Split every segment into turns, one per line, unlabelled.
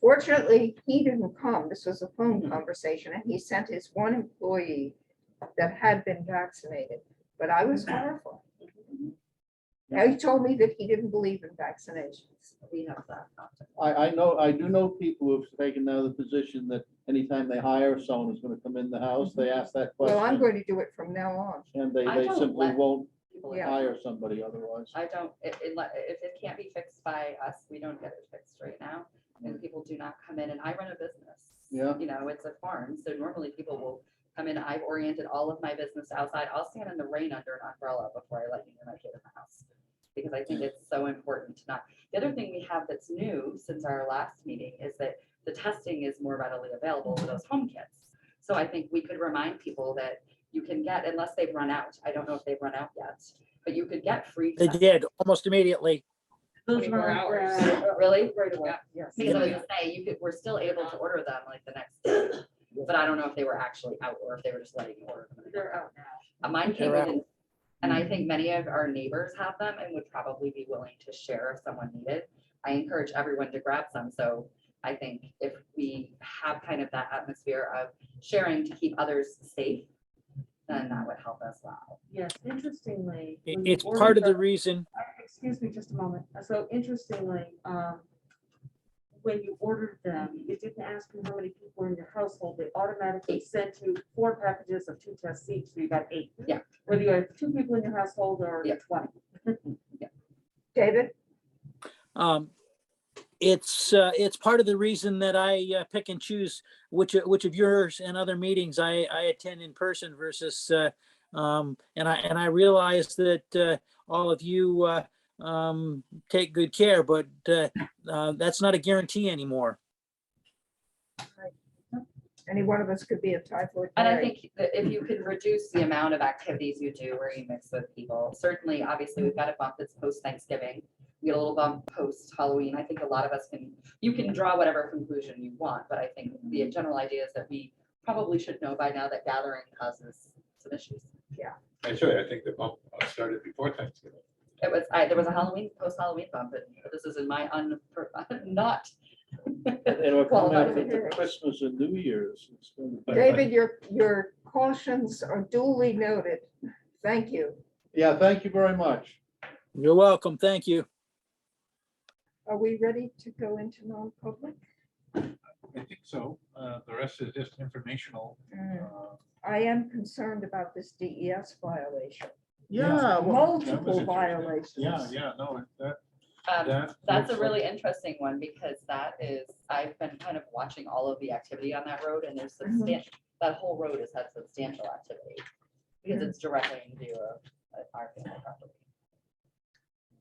Fortunately, he didn't come. This was a phone
Mm-hmm.
Mhm.
conversation and he sent his one employee that had been vaccinated, but I was
Mm-hmm.
horrified. Now, he told me that he didn't believe in vaccinations.
we have that. contact.
I, I know, I do know people who've taken now the position that anytime they hire someone who's gonna come in the house, they ask that
Well, I'm
question.
going to do it from now on.
And they,
I
they
don't
simply
let-
won't
People
Yeah.
are-
hire somebody otherwise.
I don't, it, it, let- if it can't be fixed by us, we don't get it fixed right now. And people do not come in and I run a business.
Yeah.
You know, it's a farm. So normally people will come in. I've oriented all of my business outside. I'll stand in the rain under an umbrella before I let you near my kid in the house. Because I think it's so important to not. The other thing we have that's new since our last meeting is that the testing is more readily available with those home kits. So I think we could remind people that you can get, unless they've run out, I don't know if they've run out yet, but you could get free.
They
testing.
did, almost immediately.
Those were
24 hours.
uh,
Really? Right away.
Yes.
Because I was gonna say, you could, we're still able to order them like the next day, but I don't know if they were actually out or if they were just letting you order them.
They're out now.
Uh, Mine came
They're out.
in, and I think many of our neighbors have them and would probably be willing to share if someone needed. I encourage everyone to grab some, so I think if we have kind of that atmosphere of sharing to keep others safe, then that would help as well.
Yes, interestingly.
I-
when you
It's
order
part of the reason,
uh, Excuse me just a moment. Uh, So interestingly, um, when you ordered them, you didn't ask them how many people were in your household. They automatically sent you four packages of two tests each, so you got eight.
Yeah.
Whether you have two people in your household or
Yeah.
twenty.
David,
um, it's, uh, it's part of the reason that I uh, pick and choose which, which of yours and other meetings I, I attend in person versus, uh, um, and I, and I realize that, uh, all of you, uh, um, take good care, but, uh, uh, that's not a guarantee anymore.
any one of us could be a typhoid.
And I
Mary.
think that if you could reduce the amount of activities you do where you mix with people, certainly, obviously, we've got a bump that's post Thanksgiving. We get a little bump post Halloween. I think a lot of us can, you can draw whatever conclusion you want, but I think the general idea is that we probably should know by now that gathering causes some issues.
Actually, I think the bump uh, started before Thanksgiving.
It was, I, there was a Halloween, post Halloween bump, but this is in my un, not.
It'll come
qualified
after
opinion.
Christmas and New Year's. It's gonna be-
David, your, your cautions are duly noted. Thank you.
Yeah, thank you very much.
You're welcome. Thank you.
Are we ready to go into non-public?
I think so. Uh, The rest is just informational.
Mm,
uh,
I am concerned about this DES violation,
Yeah,
well,
Uh, that was
multiple
interesting.
violations.
Yeah, yeah, no, that,
Um,
that.
That's
looks
a
like-
really interesting one because that is, I've been kind of watching all of the activity on that road and there's
Mhm.
substantial, that whole road has had substantial activity. Because it's directly in view of uh, our family property.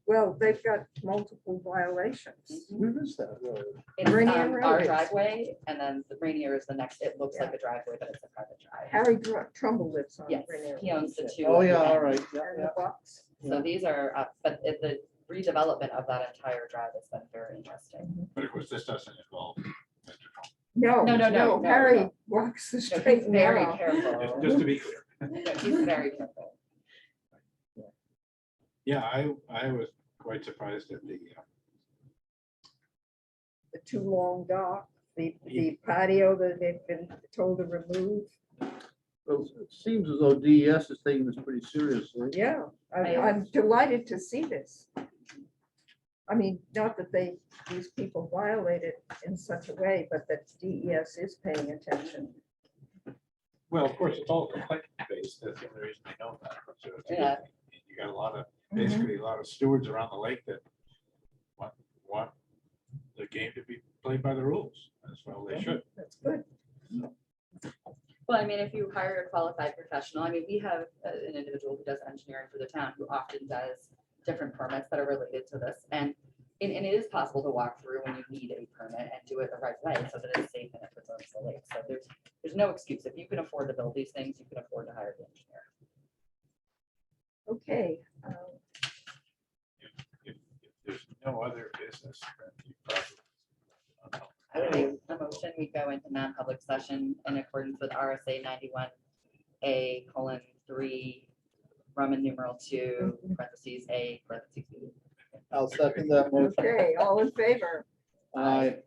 Well, they've got multiple violations.
Where is that road?
It's
Mm-hmm. Rainier
um,
Road
our
is-
driveway and then the Rainier is the next, it looks like a driveway, but it's a private drive.
Harry Dr- Trumbull lives on.
Yes,
Rainier
he owns the
Road.
two.
Oh,
at the
yeah, all
end.
right. yeah,
And
yeah.
the box.
So these are, uh, but it- the redevelopment of that entire drive has been very interesting.
Mm-hmm.
But of course, this doesn't involve Mr. Trump.
No,
No,
no,
no, no,
no,
no,
Harry
no.
walks the
So he's
straight
very
narrow.
Just-
careful.
Just to be clear.
He's very careful.
Yeah, I, I was quite surprised at the, uh,
The too long dock, the,
Yeah.
the patio that they've been told to remove.
Well, It seems as though DES is taking this pretty seriously.
Yeah, I-
I
I'm delighted to see this. I mean, not that they, these people violate it in such a way, but that DES is paying attention.
well, of course, it's all complaint based. That's the only reason I know that. So it's a good
Yeah.
thing. You got a lot of, basically a lot of stewards around the lake that want, want the game to be played by the rules. As well they should.
That's good.
Well, I mean, if you hire a qualified professional, I mean, we have uh, an individual who does engineering for the town who often does different permits that are related to this. And, and, and it is possible to walk through when you need a permit and do it the right way so that it's safe and it preserves the lake. So there's, there's no excuse. If you can afford to build these things, you can afford to hire the engineer.
Okay, um,
If if there's no other business, then you probably.
I would make a motion, we go into non-public session in accordance with RSA ninety-one A colon three, Roman numeral two, parentheses, A, parentheses, B.
I'll second that motion.
okay, all in favor?
Aye.